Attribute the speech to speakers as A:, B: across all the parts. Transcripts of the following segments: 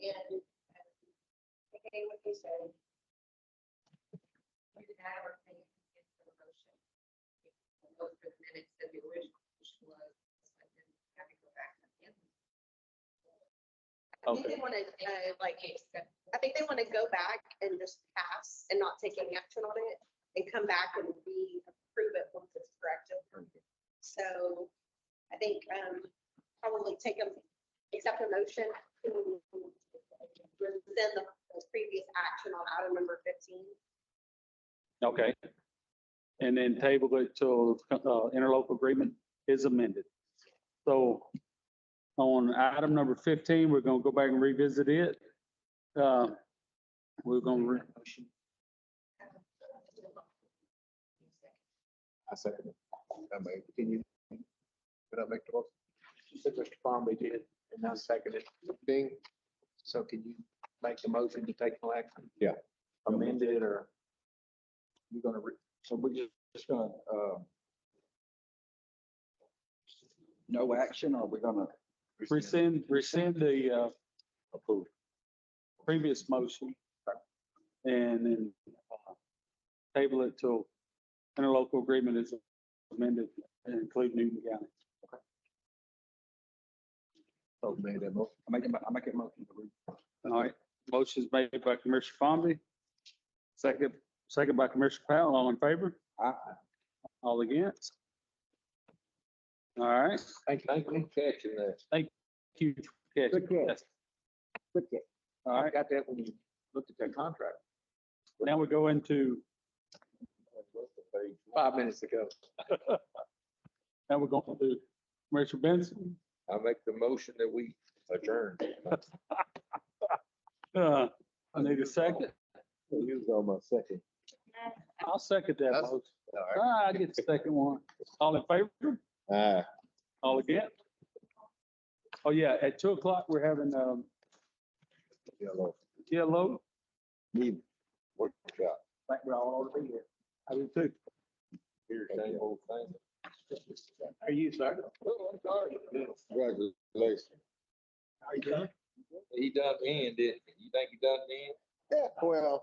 A: and okay, what they say.
B: Either that or make it into the motion. Go for the minutes that the original motion was, but then have to go back again.
A: I think they
C: Okay.
A: want to, uh, like,
B: Except
A: I think they want to go back and just pass and not take any action on it and come back and re-approve it once it's corrected. So I think, um, probably take them, accept a motion to rescind the the previous action on item number fifteen.
C: Okay. And then table it till uh, interlocal agreement is amended. So on item number fifteen, we're gonna go back and revisit it. Uh, We're gonna, re-
D: I second it. I made, can you? Could I make the motion?
E: You said Mr. Bomby did, and I seconded
D: Ding,
E: So can you make the motion to take no action?
D: Yeah.
E: Amend it or?
D: you're gonna, re- so we're just, just gonna, uh.
E: um,
D: No action, or we're gonna?
C: rescind, rescind the uh,
D: Approve.
C: previous motion. And then uh, table it till interlocal agreement is amended and include Newton County.
E: Oh,
D: So made that motion. I make, I make a motion.
C: All right, motion's made by Commissioner Fomby. Second, second by Commissioner Powell, all in favor?
D: Aye.
C: All against? All right,
E: Thank you.
D: Thank you for catching that.
C: huge catch.
E: Good catch.
C: All
E: I
C: right,
E: got that when you looked at that contract
C: now we go into,
E: five minutes ago.
C: now we're going to Commissioner Benson.
D: I make the motion that we adjourn.
C: Uh, I need a second.
D: You was on my second.
C: I'll second that
D: That's-
C: motion.
D: All right.
C: Ah, I get the second one. All in favor?
D: Aye.
C: All against? Oh, yeah, at two o'clock, we're having, um,
D: Yellow.
C: yellow.
D: Need workshop.
C: Think we all ought to be here. I do too.
D: Here, same old thing. Oh,
E: Are you, sir?
D: Congratulations. He done in, didn't he? You think he done in?
F: Yeah, well,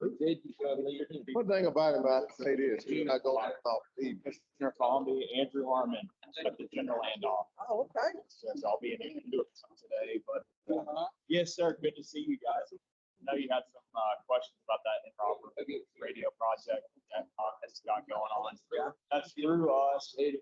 D: Who said you done in?
F: one thing about him, I'd say this, he's not going to talk to you.
G: Commissioner Bombi, Andrew Harmon, at the general land office.
F: Oh, okay.
G: Since I'll be in here to do it some today, but uh, yes, sir, good to see you guys. I know you had some uh, questions about that improper radio project that uh, that's got going on. That's through us. It